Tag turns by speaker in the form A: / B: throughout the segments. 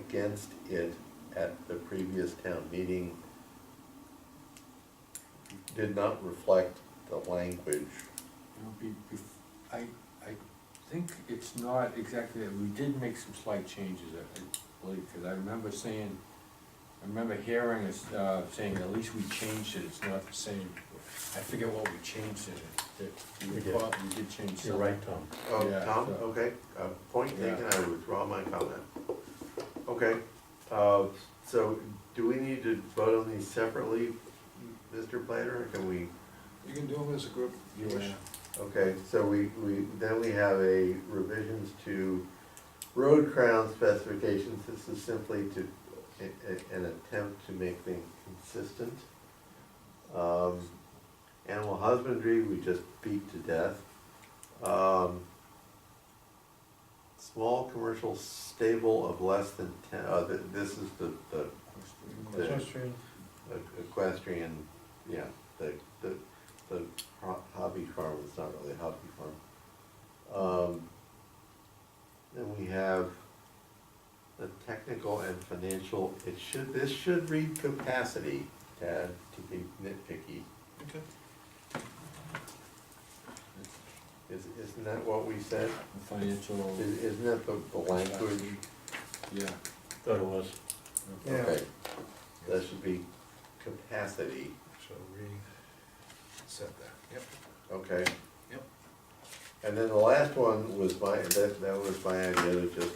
A: against it at the previous town meeting did not reflect the language.
B: It'll be, be- I, I think it's not exactly that, we did make some slight changes, I I believe, because I remember saying, I remember hearing us, uh, saying, at least we changed it, it's not the same. I forget what we changed it, that, we
C: We did.
B: thought we did change
C: You're
B: something.
C: right, Tom.
A: Oh,
B: Yeah,
A: Tom,
B: so-
A: okay, uh, point
B: Yeah.
A: taken, I withdraw my comment. Okay, uh, so do we need to vote on these separately, Mr. Planner, or can we?
D: You can do them as a group.
B: You wish.
A: Okay, so we, we, then we have a revisions to road crown specifications, this is simply to, a- a- an attempt to make things consistent. Um, Animal husbandry, we just beat to death. Um, Small commercial stable of less than ten, uh, th- this is the, the the e-, equestrian, yeah, the, the, the ho- hobby farm, it's not really a hobby farm. Um, Then we have the technical and financial, it should, this should read capacity, Tad, to be nitpicky.
D: Okay.
A: Is, isn't that what we said?
B: The Financial,
A: Is- Isn't that the, the language?
B: yeah.
C: Thought it was.
D: Yeah.
A: Okay. That should be capacity,
D: So we said that, yep.
A: okay?
D: Yep.
A: And then the last one was my, that, that was my idea to just,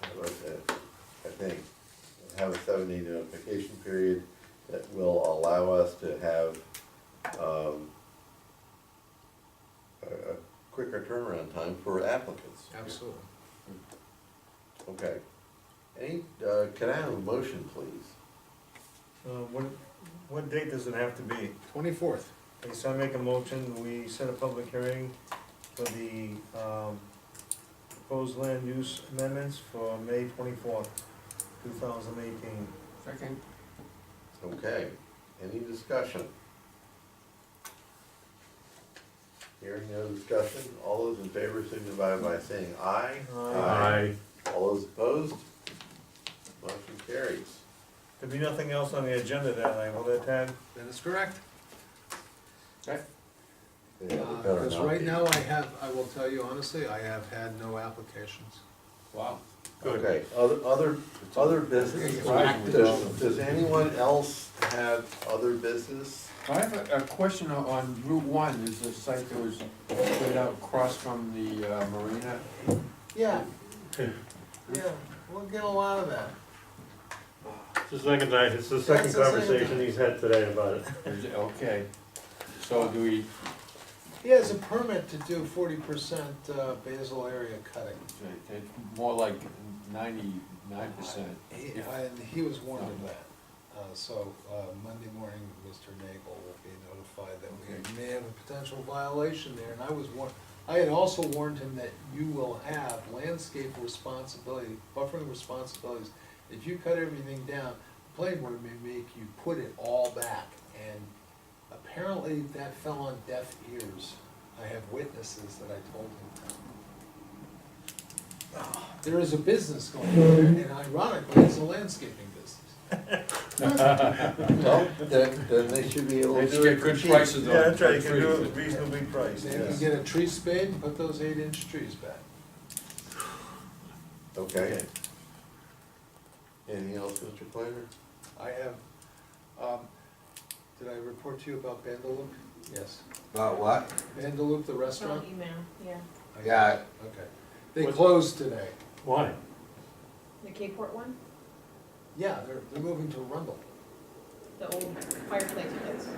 A: have a- I think, have a seven day notification period that will allow us to have, um, a, a quicker turnaround time for applicants.
D: Absolutely.
A: Okay. Any, uh, can I have a motion, please?
C: Uh, what, what date does it have to be?
D: Twenty-fourth.
C: Okay, so I make a motion, we set a public hearing for the, um, proposed land use amendments for May twenty-fourth, two thousand eighteen.
B: Second.
A: Okay, any discussion? Hearing no discussion, all those in favor signify by saying aye.
C: Aye.
A: All those opposed? Motion carries.
C: There'd be nothing else on the agenda that night, will there, Ted?
D: That is correct.
A: Yeah, it better
D: Uh, Because
A: not
D: right
A: be.
D: now I have, I will tell you honestly, I have had no applications.
B: Wow.
A: Okay, other, other, other business,
B: Right.
A: does, does anyone else have other business?
B: I have a, a question on- on Route One, there's a site that was put out across from the uh, marina.
A: Yeah, Hmm. yeah, we'll get a lot of that.
C: It's the second night, it's the
A: second That's the second conversation
C: he's had today about it.
B: Is it- Okay, so do we,
D: He has a permit to do forty percent uh, basal area cutting.
B: it's more like ninety-nine percent.
D: He- And he was warned of that. Uh, So uh, Monday morning, Mr. Nagel will be notified that we may have a potential violation there. And I was warned, I had also warned him that you will have landscape responsibility, buffering responsibilities. If you cut everything down, the planning board may make you put it all back. And apparently that fell on deaf ears. I have witnesses that I told him there is a business going on there, and ironically, it's a landscaping business.
A: Well, then, then they should be able to.
B: They
A: do
B: do
A: it
B: get good
A: for cheap.
B: prices on.
C: Yeah, that's right, you
B: for
C: can do
B: trees.
C: it reasonably priced,
D: They can
C: yes.
D: get a tree spade and put those eight-inch trees back.
A: Okay. Anything else, Mr. Planner?
D: I have, um, did I report to you about Bandaloop? Yes.
E: About what?
D: Bandaloop, the
F: Oh,
D: restaurant?
F: email, yeah,
E: Yeah,
D: Okay. They closed today.
C: Why?
F: the Cape Port one,
D: Yeah, they're, they're moving to Rundle.
F: the old fireplace place.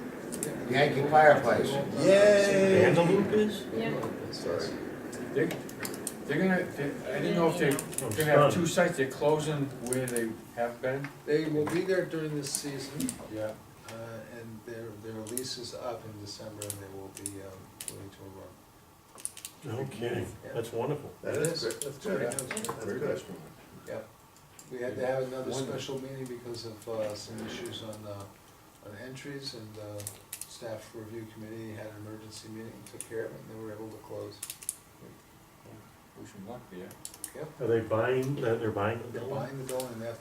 E: Yankee fireplace.
A: Yay!
C: Antelope is?
F: Yeah.
D: Sorry.
B: They- They're gonna, they- I didn't know if they're gonna have two sites, they're closing where they have been.
D: They will be there during this season,
B: Yeah.
D: uh, and their, their lease is up in December, and they will be, um, moving to Rundle.
C: No kidding,
D: That's
C: wonderful.
A: That is, good. that's good. That's good.
D: Yep, we had to have another
B: One-
D: special meeting because of uh, some issues on, uh, on entries and uh, staff review committee had an emergency meeting, took care of it, and they were able to close.
B: Wish them luck there.
D: Yep,
C: Are they buying, they're buying
D: they're buying the building, they have